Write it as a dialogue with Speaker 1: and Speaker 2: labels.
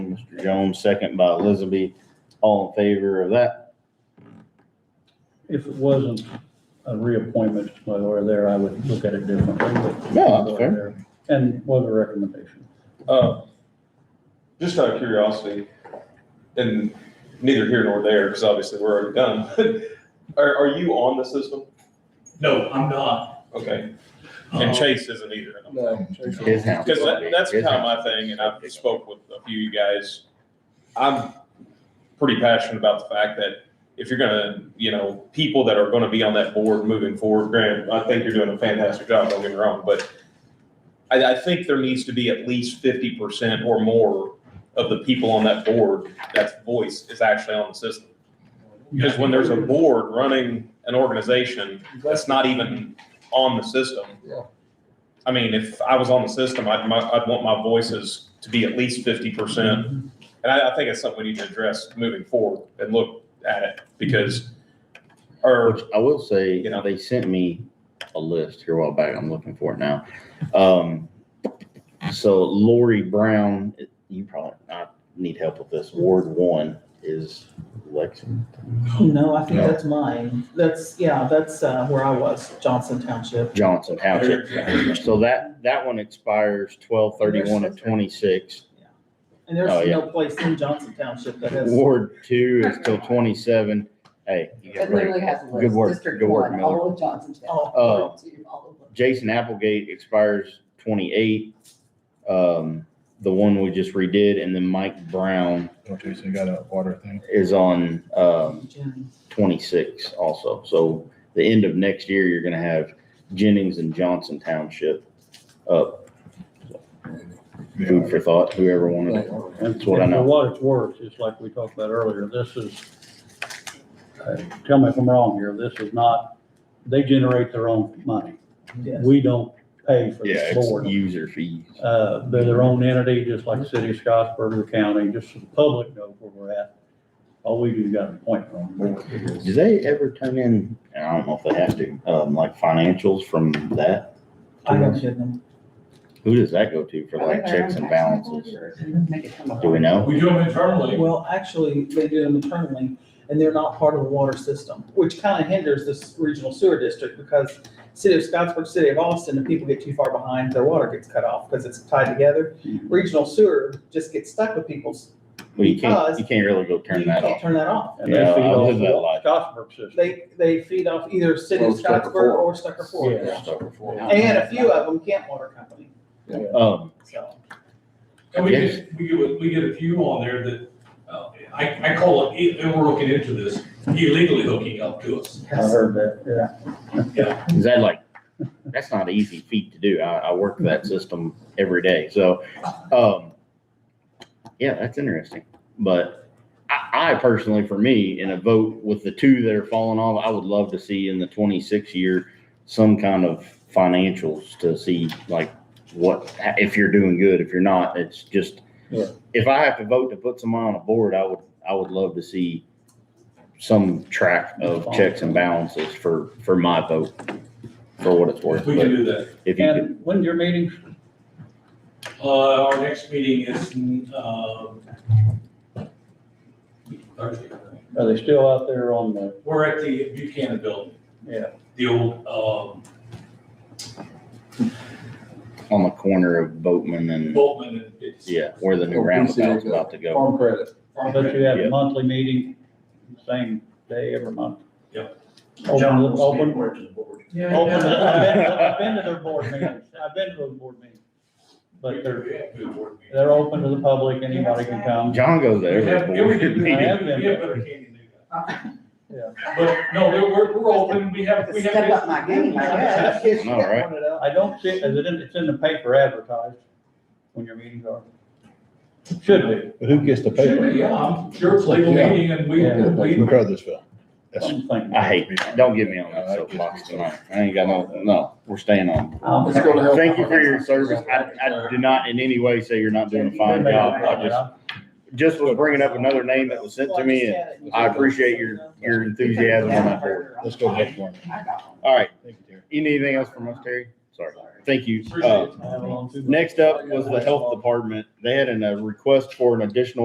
Speaker 1: Mr. Jones, second by Elizabeth. All in favor of that?
Speaker 2: If it wasn't a reappointment while we're there, I would look at it differently. but-
Speaker 1: No, that's fair.
Speaker 2: And was a recommendation.
Speaker 3: Uh, Just out of curiosity, and neither here nor there, because obviously we're already done, are, are you on the system?
Speaker 4: No, I'm not.
Speaker 3: Okay,
Speaker 4: Um,
Speaker 3: and Chase isn't either.
Speaker 1: His house.
Speaker 3: Because that, that's kind of my thing, and I've spoke with a few of you guys. I'm pretty passionate about the fact that if you're gonna, you know, people that are gonna be on that board moving forward, Grant, I think you're doing a fantastic job, don't get me wrong, but I, I think there needs to be at least fifty percent or more of the people on that board, that voice is actually on the system. Because when there's a board running an organization that's not even on the system.
Speaker 5: Yeah.
Speaker 3: I mean, if I was on the system, I'd, my- I'd want my voices to be at least fifty percent. And I, I think it's something we need to address moving forward and look at it because, or,
Speaker 1: Which I will say,
Speaker 3: You know.
Speaker 1: they sent me a list here a while back. I'm looking for it now. Um, so Lori Brown, you probably, I need help with this. Ward one is Lexington.
Speaker 6: No, I think
Speaker 1: No.
Speaker 6: that's mine. That's, yeah, that's uh, where I was, Johnson Township.
Speaker 1: Johnson Township. So that, that one expires twelve thirty-one of twenty-six.
Speaker 6: And there's
Speaker 1: Oh, yeah.
Speaker 6: no place in Johnson Township that has,
Speaker 1: Ward two is till twenty-seven. Hey, you got
Speaker 7: It
Speaker 1: great.
Speaker 7: literally has a list.
Speaker 1: Good work,
Speaker 7: District
Speaker 1: good work,
Speaker 7: one,
Speaker 1: Miller.
Speaker 7: all of Johnson.
Speaker 1: Oh.
Speaker 7: all of Two, all of them.
Speaker 1: Jason Applegate expires twenty-eight. Um, the one we just redid, and then Mike Brown
Speaker 5: Okay, so you got a water thing.
Speaker 1: is on, um,
Speaker 6: Jennings.
Speaker 1: twenty-six also. So the end of next year, you're gonna have Jennings and Johnson Township up. Food for thought, whoever wanted it. That's what I know.
Speaker 2: And For what it's worth, just like we talked about earlier, this is, uh, tell me if I'm wrong here, this is not, they generate their own money.
Speaker 6: Yes.
Speaker 2: We don't pay for
Speaker 1: Yeah,
Speaker 2: the
Speaker 1: it's
Speaker 2: board.
Speaker 1: user fees.
Speaker 2: Uh, They're their own entity, just like the city of Scottsburg, the county, just so the public knows where we're at. All we do is got an appointment on the board.
Speaker 1: Do they ever turn in, and I don't know if they have to, um, like financials from that?
Speaker 6: I don't get them.
Speaker 1: Who does that go to for
Speaker 7: Are
Speaker 1: like
Speaker 7: they their
Speaker 1: checks
Speaker 7: own
Speaker 1: and
Speaker 7: tax
Speaker 1: balances?
Speaker 7: records? Make it come up.
Speaker 1: Do we know?
Speaker 4: We do them internally.
Speaker 6: Well, actually, they do them internally, and they're not part of the water system, which kind of hinders this regional sewer district because city of Scottsburg, city of Austin, if people get too far behind, their water gets cut off because it's tied together. Regional sewer just gets stuck with people's,
Speaker 1: Well, you can't,
Speaker 6: Because-
Speaker 1: you can't really go turn
Speaker 6: you
Speaker 1: that
Speaker 6: can't
Speaker 1: off.
Speaker 6: turn that off.
Speaker 2: And they
Speaker 1: Yeah,
Speaker 2: feed
Speaker 1: I
Speaker 2: off
Speaker 1: live that life.
Speaker 2: the Scottsburg system.
Speaker 6: They, they feed off either city of
Speaker 5: Or Stucker
Speaker 6: Scottsburg
Speaker 5: Ford.
Speaker 6: or Stucker Ford.
Speaker 2: Yeah.
Speaker 6: And a few of them Kent Water Company,
Speaker 1: Um,
Speaker 6: so.
Speaker 4: And we
Speaker 1: Yes.
Speaker 4: get, we get, we get a few on there that, uh, I, I call it, ill- and we're looking into this, illegally hooking up to us.
Speaker 2: I heard that, yeah.
Speaker 1: is that like, that's not an easy feat to do. I, I work that system every day. So, um, yeah, that's interesting. But I, I personally, for me, in a vote with the two that are falling off, I would love to see in the twenty-six year some kind of financials to see like what, if you're doing good, if you're not, it's just,
Speaker 2: Yeah.
Speaker 1: if I have to vote to put someone on a board, I would, I would love to see some track of checks and balances for, for my vote, for what it's worth.
Speaker 4: We can
Speaker 1: But
Speaker 4: do that.
Speaker 1: if you could,
Speaker 2: And when's your meeting?
Speaker 4: Uh, our next meeting is, um, Thursday.
Speaker 2: Are they still out there on the,
Speaker 4: We're at the Buchanan Building,
Speaker 2: yeah,
Speaker 4: the old, um,
Speaker 1: on the corner of Boatman and,
Speaker 4: Boltman and it's.
Speaker 1: yeah, where the new
Speaker 5: Or
Speaker 1: roundabout's
Speaker 5: PCA.
Speaker 1: about to go.
Speaker 5: Farm credit.
Speaker 2: but you have a monthly meeting, same day every month?
Speaker 4: Yep.
Speaker 2: Open, open, open.
Speaker 6: Yeah.
Speaker 2: I've been, I've been to their board meetings, I've been to those board meetings. But they're,
Speaker 4: Good board meeting.
Speaker 2: they're open to the public, anybody can come.
Speaker 1: John goes
Speaker 4: We
Speaker 1: there.
Speaker 4: have,
Speaker 1: every
Speaker 4: yeah, we
Speaker 1: board
Speaker 4: do, we
Speaker 1: meeting.
Speaker 2: have
Speaker 4: have we
Speaker 2: been
Speaker 4: have
Speaker 2: there.
Speaker 4: better candy than that.
Speaker 7: Uh,
Speaker 2: Yeah.
Speaker 4: But no, we're, we're, we're open, we have, we have.
Speaker 7: Step up my game, I guess.
Speaker 1: I know, right?
Speaker 2: I don't see, is it in, it's in the paper advertised when your meetings are? Should be,
Speaker 5: But who gets the
Speaker 4: Should be, yeah, I'm sure it's legal
Speaker 5: Yeah. Uh,
Speaker 4: meeting and we,
Speaker 2: Yeah.
Speaker 4: we,
Speaker 5: Brothersville. That's-
Speaker 2: I'm thinking.
Speaker 1: I hate, don't get me on that soapbox tonight. I ain't got no, no, we're staying on.
Speaker 2: Um,
Speaker 5: It's gonna help.
Speaker 1: Thank you for your service. I, I do not in any way say you're not doing a fine job. I just, just was bringing up another name that was sent to me and I appreciate your, your enthusiasm on that board.
Speaker 5: Let's go ahead for it.
Speaker 7: I got one.
Speaker 1: All right,
Speaker 5: Thank you, Terry.
Speaker 1: You need anything else from us, Terry? Sorry. Thank you.
Speaker 4: Appreciate it.
Speaker 1: Uh, next up was the health department. They had a request for an additional